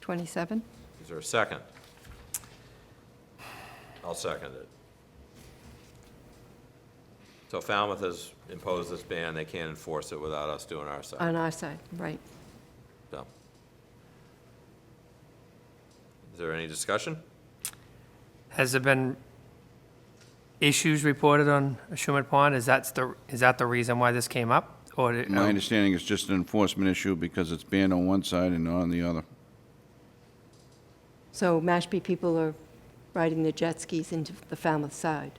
27? Is there a second? I'll second it. So Falmouth has imposed this ban, they can't enforce it without us doing our side. On our side, right. So. Is there any discussion? Has there been issues reported on Shumat Pond? Is that the, is that the reason why this came up? Or, did- My understanding is just an enforcement issue because it's banned on one side and not on the other. So Mashpee people are riding their jet skis into the Falmouth side.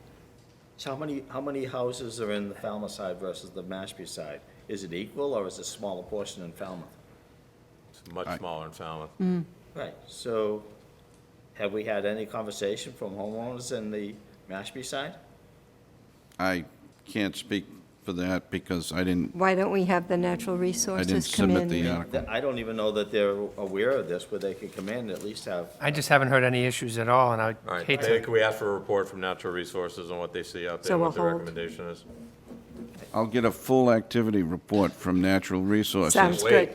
So how many, how many houses are in the Falmouth side versus the Mashpee side? Is it equal or is it smaller portion in Falmouth? It's much Aye. smaller in Falmouth. Mm. Right, so have we had any conversation from homeowners in the Mashpee side? I can't speak for that because I didn't, Why don't we have the natural I didn't resources come in? submit the uh, article. That- I don't even know that they're aware of this, where they could come in and at least have, I just haven't heard any issues at all, and All I right, hate maybe to, can we ask for a report from Natural Resources on what they see out So there, what we'll their hold. recommendation is? I'll get a full activity report from Natural Sounds Resources, good, Wait.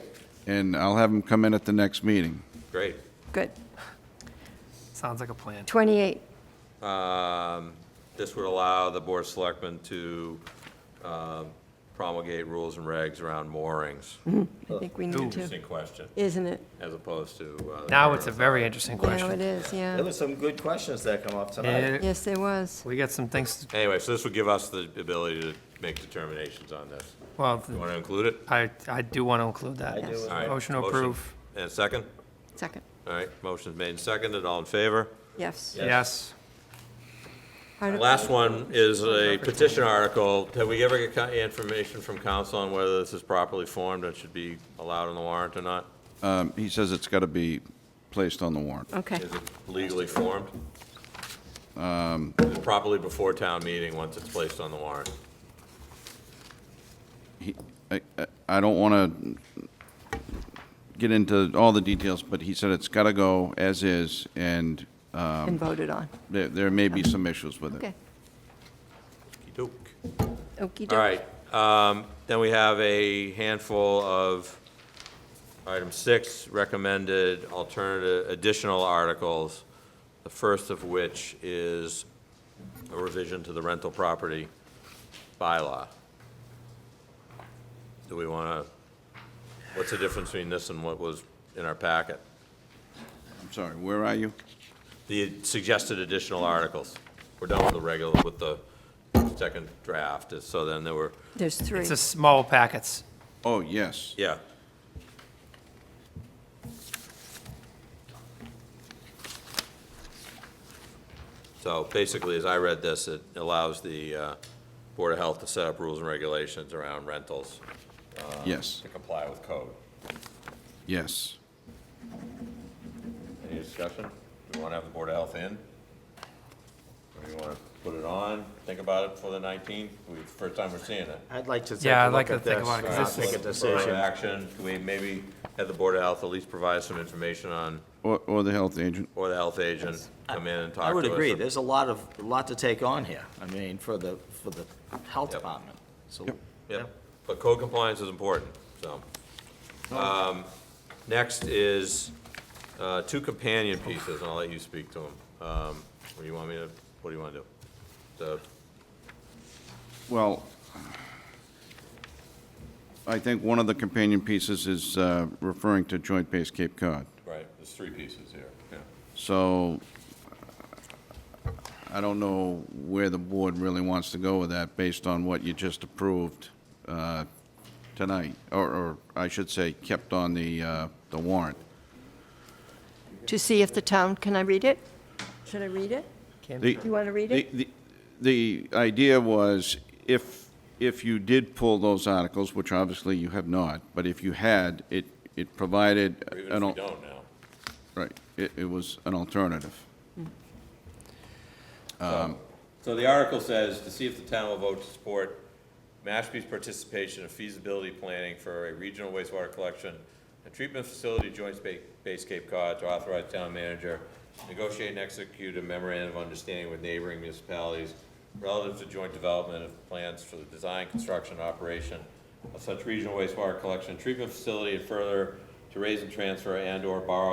and I'll have them come in at the next meeting. Great. good. sounds like a plan. 28, Um, This would allow the Board of Selectmen to um, promulgate rules and regs around moorings. I Uh, think we need to, Interesting question, isn't it? as opposed to. uh, the Now current it's a very interesting Now it question. is, there yeah. were some good questions that come up tonight. Yeah, Yes, there was. We got some things, to- Anyway, so this would give us the ability to make determinations on this. well, You want to include it? I, I do want to include that. I do. All right, Motion to approve. And a second? Second, All right, motion's made and seconded, all in favor? yes. Yes. Arti- Last one is a petition article. Have we ever got co- information from council on whether this is properly formed and should be allowed on the warrant or not? Um, He says it's got to be placed on the warrant. Okay, Is it legally formed? Is it Properly before town meeting, once it's placed on the warrant? He- I- I- I don't want to get into all the details, but he said it's got to go as is, and uh, and voted on. there there may be some issues with it. Okay, Okey-doke. okey All doke. right, um, then we have a handful of, item six, recommended alternative, additional articles, the first of which is a revision to the rental property bylaw. Do we want to, what's the difference between this and what was in our packet? I'm sorry, where are you? The suggested additional articals. We're done with the regular, with the second draft, so then there were, There's three. It's a small packets. Oh, yes. yeah. So basically, as I read this, it allows the uh, Board of Health to set up rules and regulations around rentals Yes, to comply with code. yes. Any discussion? Do you want to have the Board of Health in? Or do you want to put it on, think about it for the 19th? We- First time we're seeing it. I'd like to take Yeah, a I'd like look to at think this, about it, 'cause not this make a is- Right, decision. Action, can we maybe have the Board of Health at least provide some information on, Or, or the health agent. or the health agent come in and talk to us? I would agree, or- there's a lot of, a lot to take on here, I mean, for the, for the health Yep. department, so. Yeah, but code compliance is important, so. Oh. Um, Next is uh, two companion pieces, and I'll let you speak to them. What do you want me to, what do you want to do? The- Well, I think one of the companion pieces is uh, referring to Joint Base Cape Cod. Right, there's three pieces here, yeah. So uh, I don't know where the board really wants to go with that based on what you just approved uh, tonight, or, or I should say, kept on the, uh, the warrant. To see if the town, can I read it? Should I read it? The- You want to read The, it? the the idea was if, if you did pull those articles, which obviously you have not, but if you had, it, it provided. Or even if an we al- don't Oh, now. Right, it, it was an alternative. So the article says, to see if the town will vote to support Mashpee's participation in feasibility planning for a regional wastewater collection and treatment facility joint Ba- base Cape Cod to authorize town manager negotiate and execute a memorandum of understanding with neighboring municipalities relative to joint development of plans for the design, construction, and operation of such regional wastewater collection and treatment facility and further to raise and transfer and/or borrow